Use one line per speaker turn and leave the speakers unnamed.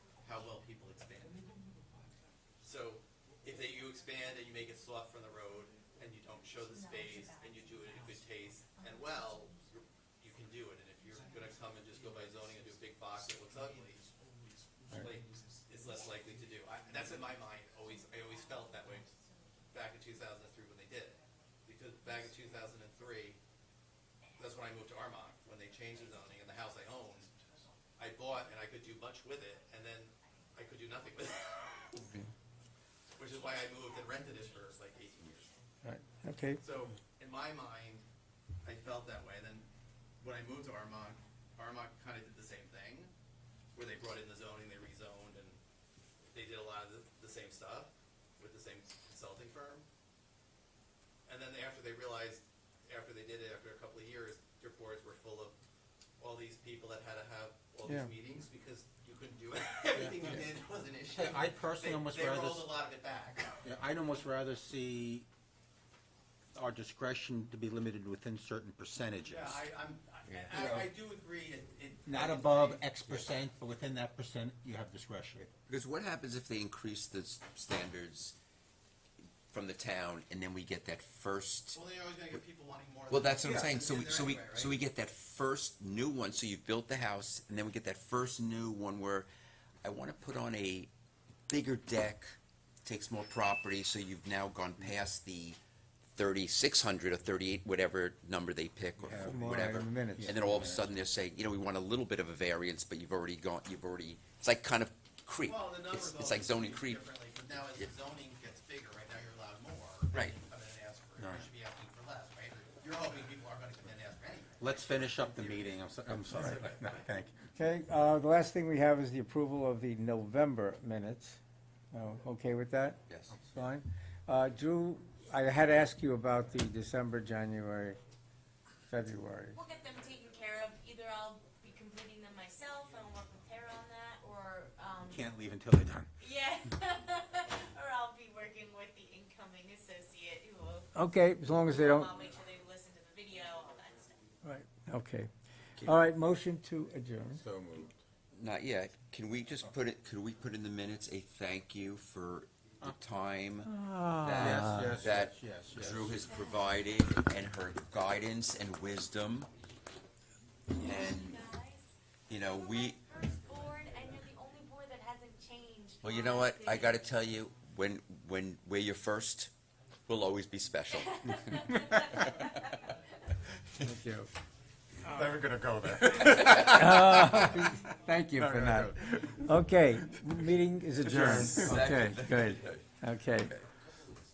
make it soft from the road, and you don't show the
No, it's
space,
about-
and you do it in good taste and well, you're- you can do it, and if you're gonna come and just go by zoning and do a big box that looks ugly, like, it's less likely to do. I, that's in my mind, always, I always felt that way back in two thousand and three when they did it. Because back in two thousand and three, that's when I moved to Armonk, when they changed the zoning, and the house I owned, I bought and I could do much with it, and then I could do nothing with it. Which is why I moved and rented it for like eighteen years.
Right, okay,
So in my mind, I felt that way. Then when I moved to Armonk, Armonk kind of did the same thing, where they brought in the zoning, they rezoned, and they did a lot of the, the same stuff with the same consulting firm. And then they- after they realized, after they did it, after a couple of years, their boards were full of all these people that had to have all
Yeah.
these meetings because you couldn't do it. Everything you did was an issue.
Hey, I personally
They-
almost
They
rather
rolled
s-
a lot of it back.
Yeah, I'd almost rather see our discretion to be limited within certain percentages.
Yeah, I, I'm, I- I, I do agree, it, it.
Not above X percent, but within that percent, you have discretion.
Because what happens if they increase the s- standards from the town and then we get that first?
Well, they're always gonna get people wanting more.
Well, that's what I'm
Yeah.
saying, so we,
They're
so we,
anywhere,
so we get that first new one, so you've built the house, and then we get that first new one where I wanna put on a bigger deck, takes more property, so you've now gone past the thirty-six hundred or thirty-eight, whatever number they pick or
Yeah.
f-
More
Uh, whatever.
item minutes.
And then all of a sudden they're saying, you know, we want a little bit of a variance, but you've already gone, you've already, it's like kind of creep.
Well, the number
It's-
of
It's like
those
zoning
is
creep.
differently, But now as the
Yeah.
zoning gets bigger, right now you're allowed more. then
Right.
you Come in and ask for, it.
Right.
you should be asking for less, right? You're hoping people are gonna come in and ask for anything.
Let's finish up the meeting, I'm, so- I'm sorry, no, thank you.
okay, uh, the last thing we have is the approval of the November minutes. Oh, Okay with that?
Yes.
Fine. Uh, Drew, I had to ask you about the December, January, February.
We'll get them taken care of. Either I'll be completing them myself and work with Tara on that, or, um,
Can't leave until they're done.
yeah. Or I'll be working with the incoming associate who will,
Okay, as long as they don't,
I'll make sure they listen to the video, all that stuff.
right, okay. All right, motion to adjourn.
So moved.
Not yet. Can we just put it, could we put in the minutes a thank you for the time
Ah,
Yes, yes,
that
yes, yes, yes.
Drew has provided and her guidance and wisdom? And,
Guys,
you know,
we're
we,
my First board, and you're the only board that hasn't changed.
well, you know what? I gotta tell you, when, when we're your first, we'll always be special.
Thank you.
Never gonna go there.
Thank you for that. Okay, meeting is adjourned. Okay, good. Okay.